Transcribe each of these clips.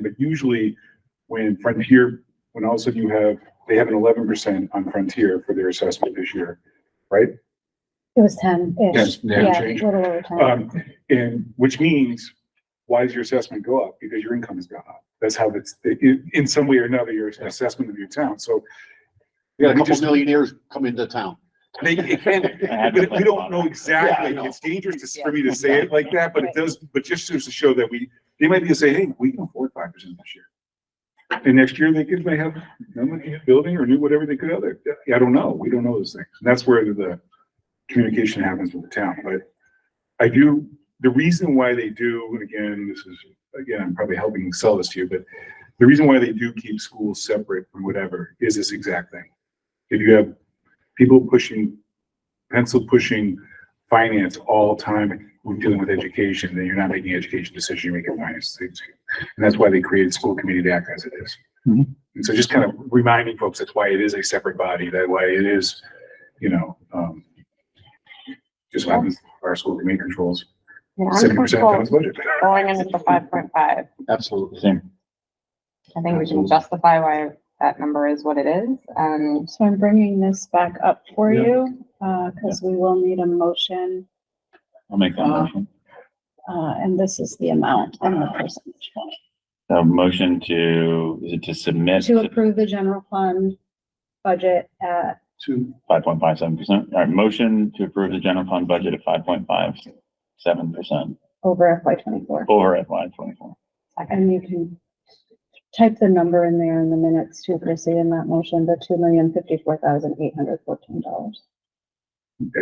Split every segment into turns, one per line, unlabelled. But usually when Frontier, when all of a sudden you have, they have an eleven percent on Frontier for their assessment this year, right?
It was ten-ish.
Yes, yeah,
Yeah, a
change.
little over ten.
Um, and which means, why does your assessment go up? Because your income has gone up. That's how it's, in, in some way or another, your assessment of your town, so.
We got a
we
couple
just-
millionaires come into town.
They, it can,
had
we,
to
we
think
don't
about
know
it.
exactly,
Yeah, I know.
it's dangerous to- for me to say it like that, but it does, but just to show that we, they might be able to say, hey, we can afford five percent this year. And next year, they could, may have, no money in the building or new whatever they could other, I don't know, we don't know those things, and that's where the communication happens with the town, but I do, the reason why they do, and again, this is, again, I'm probably helping sell this to you, but the reason why they do keep schools separate from whatever is this exact thing. If you have people pushing, pencil pushing finance all the time, we're dealing with education, then you're not making education decisions, you're making finance decisions. And that's why they created school committee to act as it is.
Mhm.
And so just kind of reminding folks, that's why it is a separate body, that why it is, you know, um, just what happens, our school committee controls
And I'm
seventy percent of the town's
comfortable
budget.
going in at the five point five.
Absolutely.
Same.
I think we can justify why that number is what it is. Um, And
So I'm bringing this back up for
Yeah.
you, uh, because we will need a motion,
I'll make that
Uh,
motion.
uh, and this is the amount and the percentage.
A motion to, is it to submit
To approve the general fund budget at,
Two.
five point five seven percent? All right, motion to approve the general fund budget at five point five seven percent
over FY twenty-four.
over FY twenty-four.
And you can type the number in there in the minutes to proceed in that motion, the two million fifty-four thousand eight hundred fourteen dollars.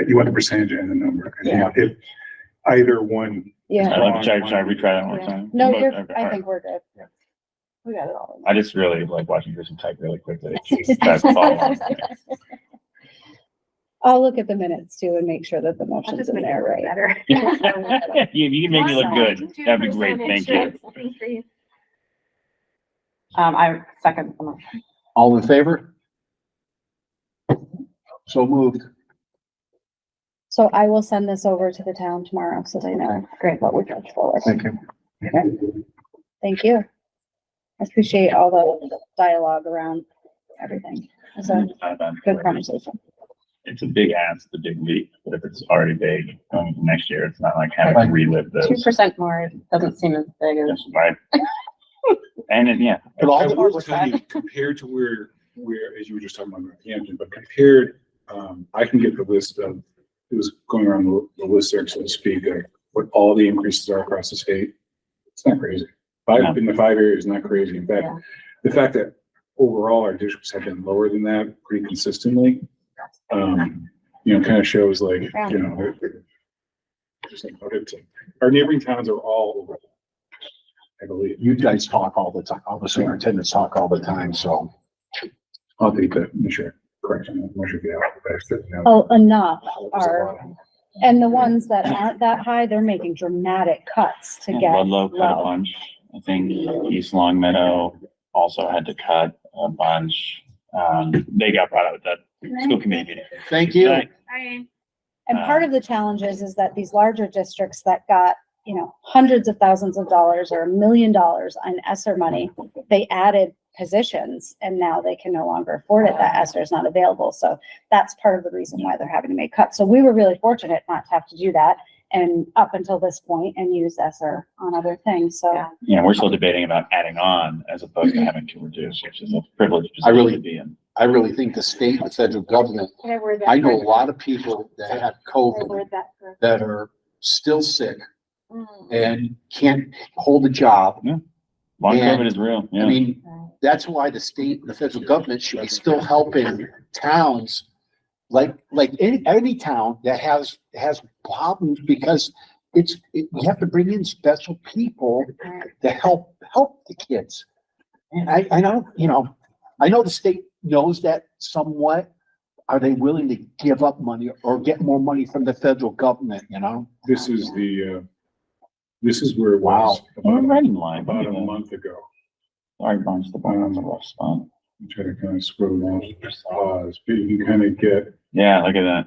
You want the percentage and the number. And
Yeah.
If either one,
Yeah,
I'd like to try, should I retry that one more time?
no,
Mo-
you're,
Uh, okay, all
I
right.
think we're good.
Yeah.
We got it all.
I just really like watching Kristen type really quickly. It's fast follow.
I'll look at the minutes too and make sure that the motion's in there, right?
You, you can make me look good. That'd be great. Thank you.
you.
um, I second the motion.
All in favor? So moved.
So I will send this over to the town tomorrow so they know
Great.
what we're going forward.
Thank you.
Thank you. I appreciate all the dialogue around everything. It's a
Not bad.
good conversation.
It's a big ask, the big leap, but if it's already big going into next year, it's not like having to relive
Two
those.
percent more doesn't seem as big as,
Just right. And then, yeah,
But all
I
the
will
work-
tell you, compared to where, where, as you were just talking about Northampton, but compared, um, I can get the list of, it was going around the, the list there, so to speak, of what all the increases are across the state. It's not crazy. Five, in the five areas, not crazy. In fact,
Yeah.
the fact that overall our districts have been lower than that pretty consistently, um, you know, kind of shows like, you know, they're- they're- just like, okay, so our neighboring towns are all over. I believe.
You guys talk all the time, all the superintendents talk all the time, so.
I'll take that, sure, correction, measure the out, but I said no.
Oh, enough are,
All
and the ones that aren't that high, they're making dramatic cuts to
Yeah,
get
Ludlow cut a
low.
bunch. I think East Long Meadow also had to cut a bunch. Um, they got brought up at that school committee meeting.
Thank you.
Right.
Hi.
And part of the challenge is, is that these larger districts that got, you know, hundreds of thousands of dollars or a million dollars on ESSER money, they added positions and now they can no longer afford it. That ESSER is not available. So that's part of the reason why they're having to make cuts. So we were really fortunate not to have to do that and up until this point and use ESSER on other things. So
Yeah.
You know, we're still debating about adding on as opposed to having to reduce, which is a privileged
I
position
really-
to be in.
I really think the state and federal government,
Can I word that?
I know a
correctly?
lot of people that have
Can I
COVID
word that correctly?
that are still sick
Mm.
and can't hold a job.
Long
Yeah.
COVID is real,
I
yeah.
mean, that's why the state and the federal government should be still helping towns. Like, like any, any town that has, has problems because it's, it- you have to bring in special people to help, help the kids. And I, I know, you know, I know the state knows that somewhat. Are they willing to give up money or get more money from the federal government, you know?
This is the, uh, this is where it was
We're
about,
right in line.
about a
Sorry,
month ago.
Barnes, the bottom the rough spot.
I'm trying to kind of scroll down, pause, but you can kind of get,
Yeah, look at that.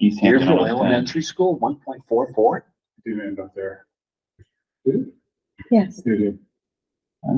East Hampton.
Deerfield
on the 10.
Elementary School, one point four four.
did end up there. Did it?
yes,
Did it?